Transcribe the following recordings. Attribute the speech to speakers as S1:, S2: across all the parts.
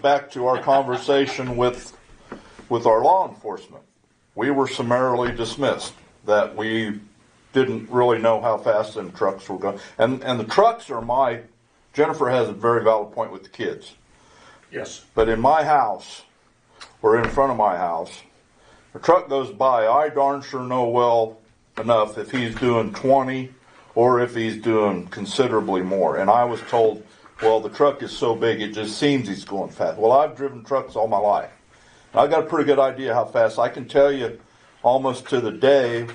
S1: back to our conversation with, with our law enforcement. We were summarily dismissed, that we didn't really know how fast them trucks were going. And, and the trucks are my, Jennifer has a very valid point with the kids.
S2: Yes.
S1: But in my house, or in front of my house, a truck goes by, I darn sure know well enough if he's doing twenty or if he's doing considerably more. And I was told, well, the truck is so big, it just seems he's going fast. Well, I've driven trucks all my life. And I've got a pretty good idea how fast. I can tell you almost to the day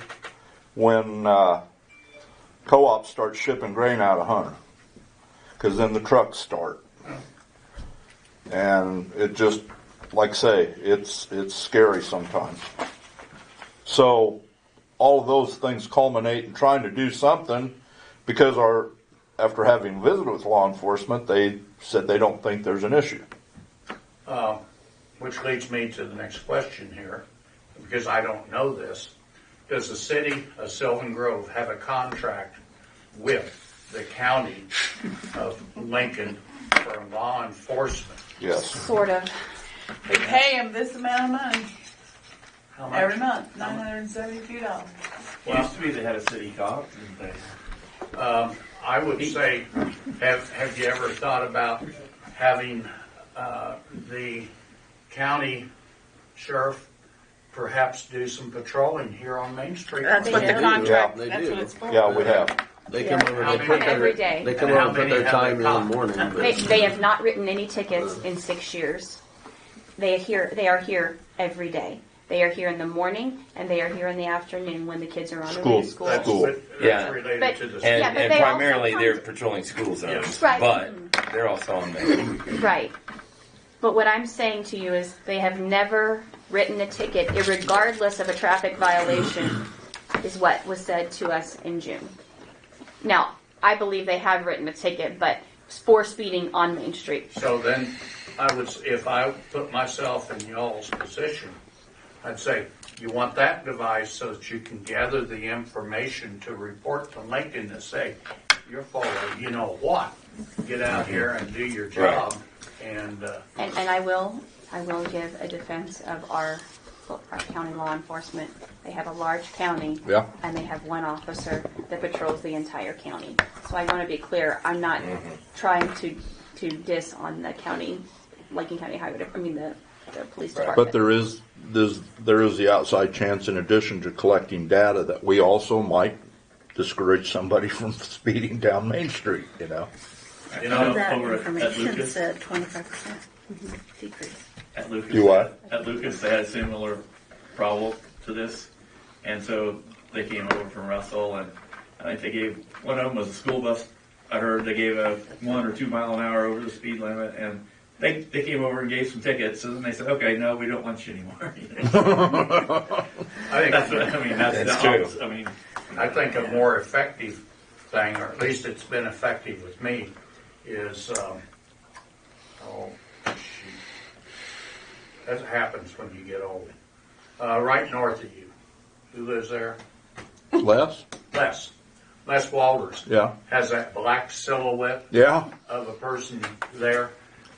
S1: when, uh, co-ops start shipping grain out of Hunter. Cause then the trucks start. And it just, like I say, it's, it's scary sometimes. So all of those things culminate in trying to do something because our, after having visited with law enforcement, they said they don't think there's an issue.
S2: Which leads me to the next question here, because I don't know this. Does the city of Sylvan Grove have a contract with the county of Lincoln for law enforcement?
S1: Yes.
S3: Sort of. We pay them this amount of money
S2: How much?
S3: every month, nine hundred and seventy-two dollars.
S4: Used to be they had a city cop, and they,
S2: I would say, have, have you ever thought about having, uh, the county sheriff perhaps do some patrolling here on Main Street?
S5: That's what the
S1: do.
S5: contract,
S6: They
S5: that's
S6: do.
S5: what it's for.
S1: Yeah, we have.
S6: They come over,
S2: How
S6: they
S2: many-
S6: put
S5: Every
S6: their,
S5: day.
S6: they come
S2: And
S6: over
S2: how
S6: and put
S2: many
S6: their
S2: have
S6: time
S2: they
S6: in the
S2: caught?
S6: morning,
S5: They,
S6: but
S5: they have not written any tickets in six years. They are here, they are here every day. They are here in the morning and they are here in the afternoon when the kids are on their way
S1: School.
S5: to school.
S2: That's,
S1: Cool.
S2: that-
S7: Yeah.
S2: that's related
S5: But-
S2: to the.
S7: And,
S5: Yeah, but
S7: and
S5: they also
S7: primarily
S5: come
S7: they're
S5: to-
S7: patrolling school zones,
S5: Right. Mm-hmm.
S7: but they're also on there.
S5: Right. But what I'm saying to you is they have never written a ticket, regardless of a traffic violation, is what was said to us in June. Now, I believe they have written a ticket, but for speeding on Main Street.
S2: So then, I would, s- if I put myself in y'all's position, I'd say, you want that device so that you can gather the information to report to Lincoln to say, you're following, you know what? Get out here and do your job, and, uh,
S5: And, and I will, I will give a defense of our, our county law enforcement. They have a large county.
S1: Yeah.
S5: And they have one officer that patrols the entire county. So I want to be clear, I'm not
S1: Mm-hmm.
S5: trying to, to diss on the county, Lincoln County Highway, I mean, the, the police
S1: But
S5: department.
S1: there is, there's, there is the outside chance in addition to collecting data that we also might discourage somebody from speeding down Main Street, you know?
S2: you
S4: Oh,
S2: know,
S4: Right.
S8: That
S4: over at- at
S8: information
S4: Lucas?
S8: said twenty-five percent decrease.
S4: at Lucas.
S1: Do what?
S4: At Lucas, they had a similar problem to this, and so they came over from Russell, and I think they gave, one of them was a school bus, I heard they gave a one or two mile an hour over the speed limit, and they, they came over and gave some tickets, and then they said, okay, no, we don't want you anymore.
S2: I
S4: That's
S2: think,
S4: what, I mean, that's
S7: That's
S4: the,
S7: true.
S4: obvious- I mean,
S2: I think a more effective thing, or at least it's been effective with me, is, um, oh, shoot. That happens when you get old. Uh, right north of you, who lives there?
S1: Les?
S2: Les. Les Walters.
S1: Yeah.
S2: Has that black silhouette
S1: Yeah?
S2: of a person there.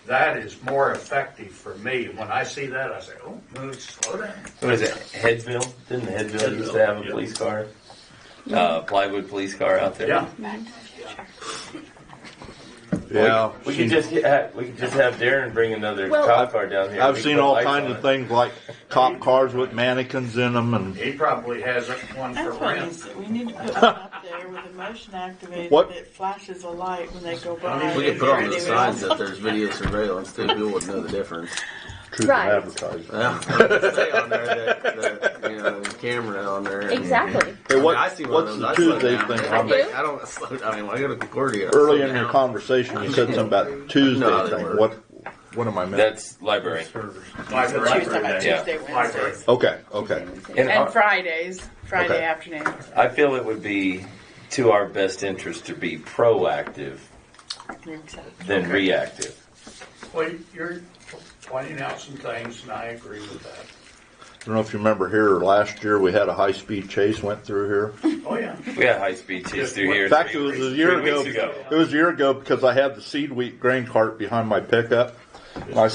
S2: That is more effective for me. When I see that, I say, oh, move, slow down.
S7: What is it, Headville? Didn't Headville used to have a
S4: Headville, yeah.
S7: police car? Uh, plywood police car out there?
S2: Yeah.
S1: Yeah.
S7: We could just get, ha- we could just have Darren bring another
S5: Well-
S7: cop car down here.
S1: I've
S7: We
S1: seen
S7: put
S1: all
S7: lights
S1: kinds
S7: on
S1: of
S7: it.
S1: things like cop cars with mannequins in them and,
S2: He probably has one for
S3: That's what we
S2: rent.
S3: said, we need to put one up there with a motion activated
S1: What?
S3: that flashes a light when they go
S2: I
S3: by.
S2: mean,
S6: we could put on
S3: Anyway,
S6: the signs that there's video surveillance too, people wouldn't know the difference.
S1: truth in
S5: Right.
S1: advertising.
S6: Well, I'm gonna say on there that, that, you know, the camera on there. and-
S5: Exactly.
S1: Hey,
S6: I mean,
S1: what,
S6: I see one
S1: what's
S6: of
S1: the
S6: those, I slow
S1: Tuesday
S6: down.
S1: thing?
S5: I
S1: I'm-
S5: do.
S6: I don't slow down. I mean, when I go to Concordia. I
S1: Early
S6: slow
S1: in your
S6: down.
S1: conversation, you said something about Tuesday
S6: No, they
S1: thing.
S6: were.
S1: What, what am I missing?
S7: That's library.
S2: Like
S3: She was talking
S2: rent.
S3: about
S7: Yeah.
S3: Tuesday,
S2: Library.
S3: Wednesdays.
S1: Okay, okay.
S7: And
S5: And
S7: our-
S5: our-
S3: And Fridays, Friday
S1: Okay.
S3: afternoon.
S7: I feel it would be to our best interest to be proactive than reactive.
S2: Well, you're pointing out some things, and I agree with that.
S1: I don't know if you remember here, last year we had a high-speed chase went through here.
S2: Oh, yeah.
S7: We had high speed chase through here.
S1: In fact, it
S7: three
S1: was a
S7: weeks-
S1: year
S7: three
S1: ago.
S7: weeks ago.
S1: It was a year ago because I had the seed wheat grain cart behind my pickup. My